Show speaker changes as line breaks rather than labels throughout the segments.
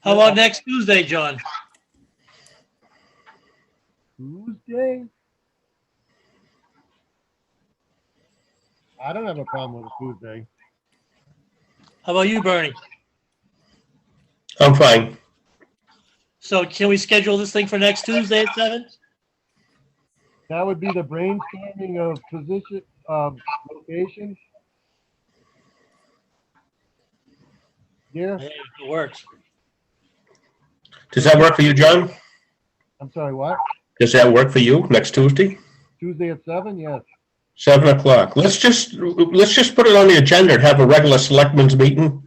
How about next Tuesday, John?
Tuesday? I don't have a problem with a Tuesday.
How about you, Bernie?
I'm fine.
So can we schedule this thing for next Tuesday at seven?
That would be the brainstorming of position, of location. Yeah,
It works.
Does that work for you, John?
I'm sorry, what?
Does that work for you next Tuesday?
Tuesday at seven? Yes.
Seven o'clock. Let's just, let's just put it on the agenda and have a regular selectmen's meeting.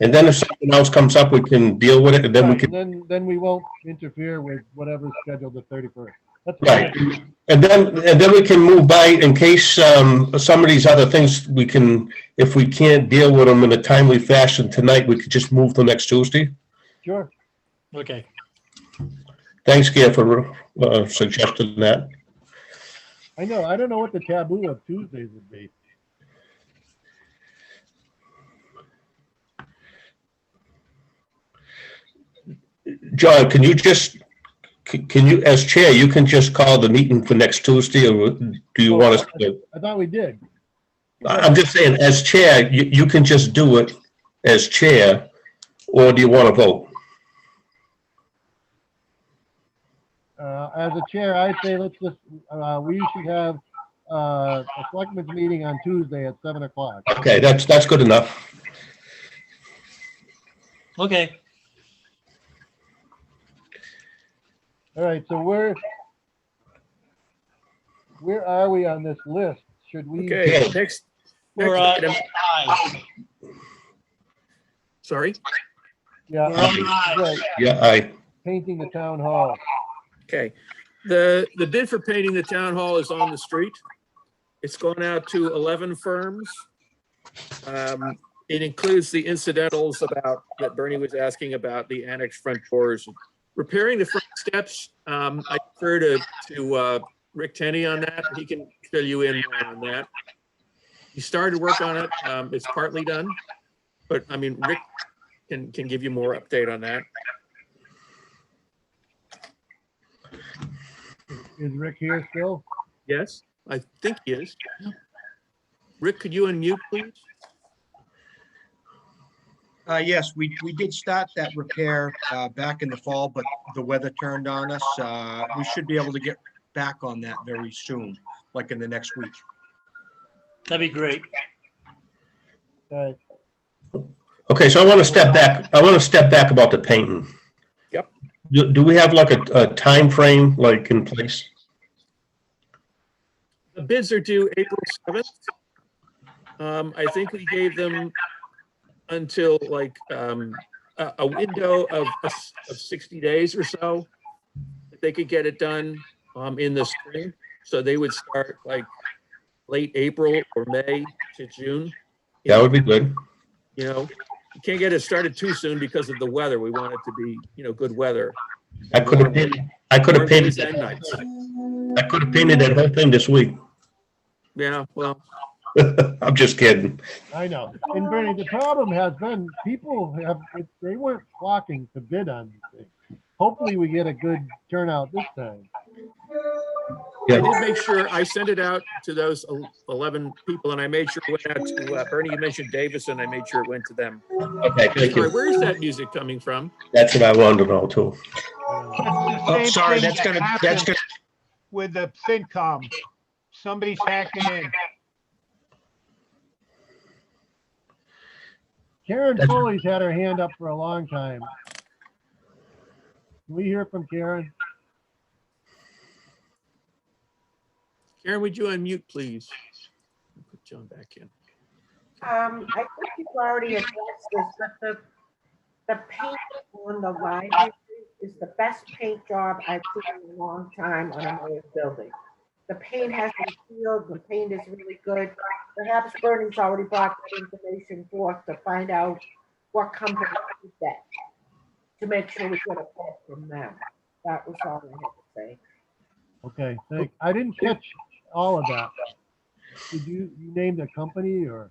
And then if something else comes up, we can deal with it and then we
Right,
can,
and Then, then we won't interfere with whatever's scheduled the thirty-first. That's
right.
fine.
And then, and then we can move by in case, um, some of these other things we can, if we can't deal with them in a timely fashion tonight, we could just move to next Tuesday.
Sure.
Okay.
Thanks, Gail, for, uh, suggesting that.
I know. I don't know what the taboo of Tuesdays would be.
John, can you just, c- can you, as chair, you can just call the meeting for next Tuesday, or do you want us to?
I thought we did.
I- I'm just saying, as chair, you, you can just do it as chair, or do you want to vote?
Uh, as a chair, I say let's just, uh, we should have, uh, a selectmen's meeting on Tuesday at seven o'clock.
Okay, that's, that's good enough.
Okay.
All right, so where, where are we on this list? Should we?
Yeah.
Okay, next,
We're uh,
next
on
item,
eyes.
sorry.
Yeah,
We're on eyes.
right,
Yeah, I,
painting the town hall.
Okay. The, the bid for painting the town hall is on the street. It's gone out to 11 firms. Um, It includes the incidentals about, that Bernie was asking about, the annex front doors. Repairing the front steps, um, I defer to, to uh, Rick Tenney on that. He can fill you in more on that. He started work on it. Um, It's partly done. But I mean, Rick can, can give you more update on that.
Is Rick here still?
Yes, I think he is. Rick, could you unmute, please?
Uh, yes, we, we did start that repair, uh, back in the fall, but the weather turned on us. Uh, we should be able to get back on that very soon, like in the next week.
That'd be great.
Okay.
okay, so I want to step back, I want to step back about the painting.
Yep.
Do, do we have like a, a timeframe, like in place?
The bids are due April seventh. Um, I think we gave them until like, um, a, a window of, of sixty days or so. that They could get it done, um, in the spring, so they would start like late April or May to June.
That would be good.
you know, you can't get it started too soon because of the weather. We want it to be, you know, good weather.
I could have painted, I could have painted,
Mornings and
that-
nights.
I could have painted that whole thing this week.
Yeah, well,
I'm just kidding.
I know. And Bernie, the problem has been people have, they weren't flocking to bid on these things. Hopefully we get a good turnout this time.
I
Yeah,
did make sure, I sent it out to those el- eleven people and I made sure it went out to, uh, Bernie, you mentioned Davis and I made sure it went to them.
okay, thank
Sorry,
you.
where is that music coming from?
That's what I wanted to know too.
Oh,
Same
sorry,
thing
that's
that
gonna, that's
happened
gonna,
With the FinCom, somebody's hacking in.
Karen Foley's had her hand up for a long time. Can we hear from Karen?
Karen, would you unmute, please? Put John back in.
Um, I think you've already addressed this, but the, the paint on the library is the best paint job I've seen in a long time on a mayor's building. The paint has been sealed, the paint is really good. Perhaps Bernie's already brought that information forth to find out what company did that. To make sure we get a quote from them. That was all I had to say.
Okay, thank, I didn't catch all of that. Did you, you named a company or?